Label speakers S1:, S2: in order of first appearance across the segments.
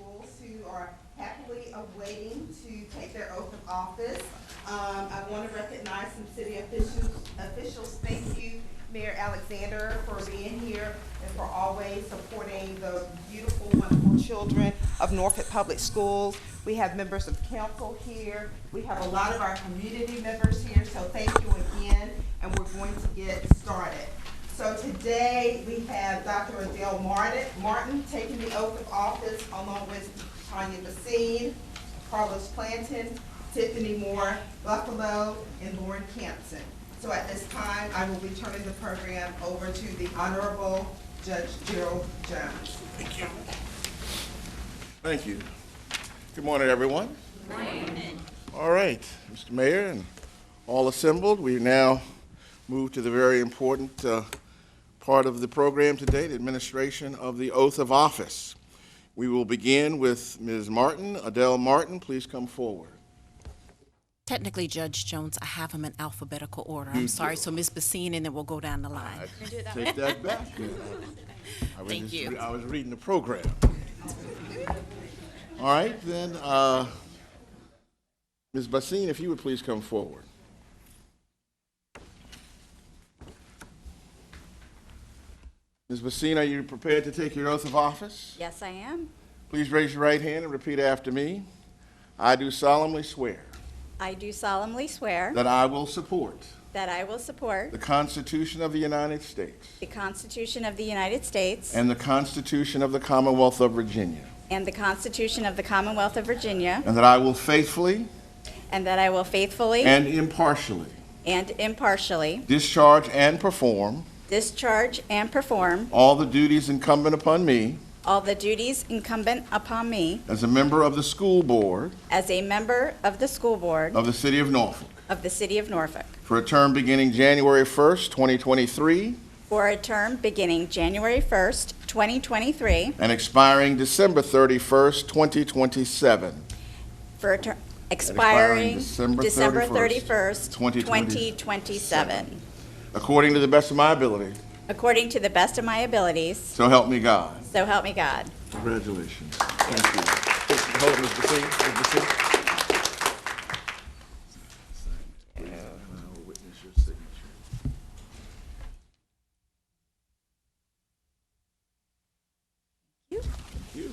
S1: Uh, are happily awaiting to take their oath of office. Um, I want to recognize some city officials, officials. Thank you, Mayor Alexander, for being here and for always supporting the beautiful, wonderful children of Norfolk Public Schools. We have members of council here. We have a lot of our community members here, so thank you again, and we're going to get started. So today, we have Dr. Adele Martin, Martin taking the oath of office along with Tanya Basine, Carlos Planton, Tiffany Moore Buffalo, and Lauren Campson. So at this time, I will be turning the program over to the Honorable Judge Gerald Jones.
S2: Thank you. Good morning, everyone. All right, Mr. Mayor and all assembled, we now move to the very important uh, part of the program today, the administration of the oath of office. We will begin with Ms. Martin. Adele Martin, please come forward.
S3: Technically, Judge Jones, I have them in alphabetical order. I'm sorry. So Ms. Basine, and then we'll go down the line.
S2: Take that back. I was
S3: Thank
S2: just
S3: you.
S2: re- I was reading the program. All right, then, uh, Ms. Basine, if you would please come forward. Ms. Basine, are you prepared to take your oath of office?
S4: Yes, I am.
S2: Please raise your right hand and repeat after me. I do solemnly swear
S4: I do solemnly swear
S2: that I will support
S4: that I will support
S2: the Constitution of the United States
S4: the Constitution of the United States
S2: and the Constitution of the Commonwealth of Virginia,
S4: and the Constitution of the Commonwealth of Virginia,
S2: and that I will faithfully
S4: and that I will faithfully
S2: And impartially.
S4: and impartially
S2: Discharge and perform
S4: discharge and perform
S2: all the duties incumbent upon me
S4: all the duties incumbent upon me
S2: as a member of the school board
S4: as a member of the school board
S2: of the city of Norfolk
S4: of the City of Norfolk
S2: for a term beginning January 1st, 2023,
S4: for a term beginning January 1st, 2023,
S2: and expiring December 31st, 2027.
S4: for a term
S2: expiring
S4: expiring
S2: December
S4: December
S2: 31st,
S4: 31st, 2027,
S2: According to the best of my ability,
S4: according to the best of my abilities.
S2: so help me God.
S4: So help me God.
S2: Congratulations. Thank you. Hold, Mr. Basine, Mr. Basine. And I will witness your signature. Thank you.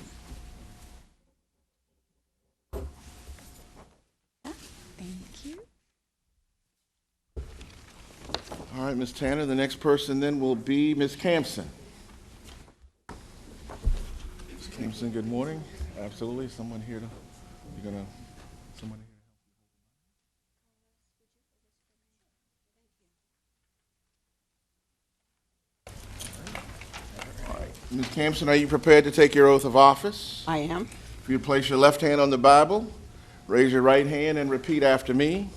S4: Thank you.
S2: All right, Ms. Tanner, the next person then will be Ms. Campson. Ms. Campson, good morning. Absolutely, someone here to, you're gonna, someone here. All right. Ms. Campson, are you prepared to take your oath of office?
S5: I am.
S2: If you place your left hand on the Bible, raise your right hand and repeat after me.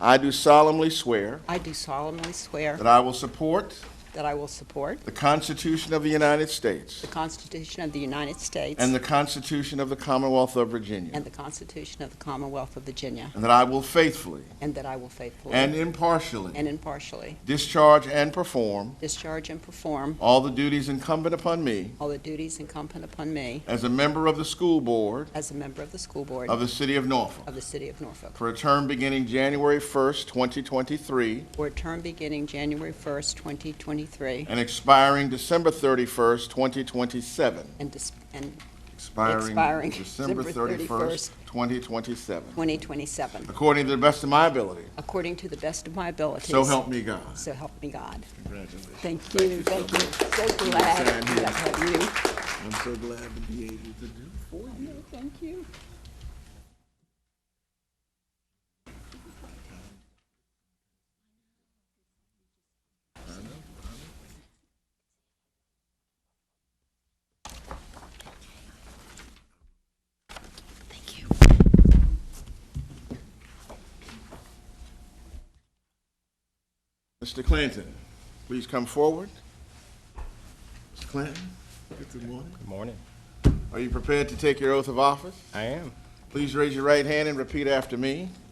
S2: I do solemnly swear
S5: I do solemnly swear
S2: that I will support
S5: that I will support
S2: The Constitution of the United States.
S5: the Constitution of the United States
S2: And the Constitution of the Commonwealth of Virginia.
S5: and the Constitution of the Commonwealth of Virginia,
S2: And that I will faithfully
S5: and that I will faithfully
S2: and impartially
S5: and impartially
S2: discharge and perform
S5: discharge and perform
S2: all the duties incumbent upon me
S5: all the duties incumbent upon me
S2: as a member of the school board
S5: as a member of the school board
S2: of the City of Norfolk
S5: of the City of Norfolk
S2: for a term beginning January 1st, 2023,
S5: for a term beginning January 1st, 2023,
S2: and expiring December 31st, 2027.
S5: and dis- and
S2: Expiring
S5: Expiring
S2: December
S5: December
S2: 31st, 2027.
S5: 2027,
S2: According to the best of my ability.
S5: according to the best of my abilities.
S2: So help me God.
S5: So help me God.
S2: Congratulations.
S5: Thank you, thank you. So glad
S2: Sign here.
S5: that I have you.
S2: I'm so glad to be able to do it for you.
S5: Thank you.
S2: Mr. Clanton, please come forward. Mr. Clanton, good morning.
S6: Good morning.
S2: Are you prepared to take your oath of office?
S6: I am.
S2: Please raise your right hand and repeat after me.